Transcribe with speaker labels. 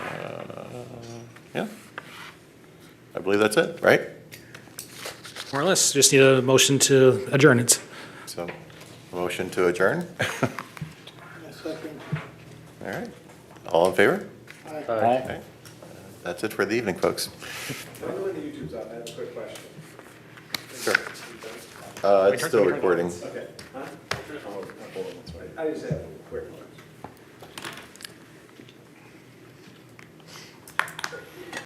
Speaker 1: Uh, Yeah. I believe that's it, right?
Speaker 2: More or less, just need a motion to adjourn it.
Speaker 1: So, motion to adjourn?
Speaker 3: Second.
Speaker 1: All right. All in favor?
Speaker 4: Aye.
Speaker 1: All right. That's it for the evening, folks.
Speaker 3: When the YouTube's up, I have a quick question.
Speaker 1: Sure. Uh, it's still recording.
Speaker 3: I just have a quick one.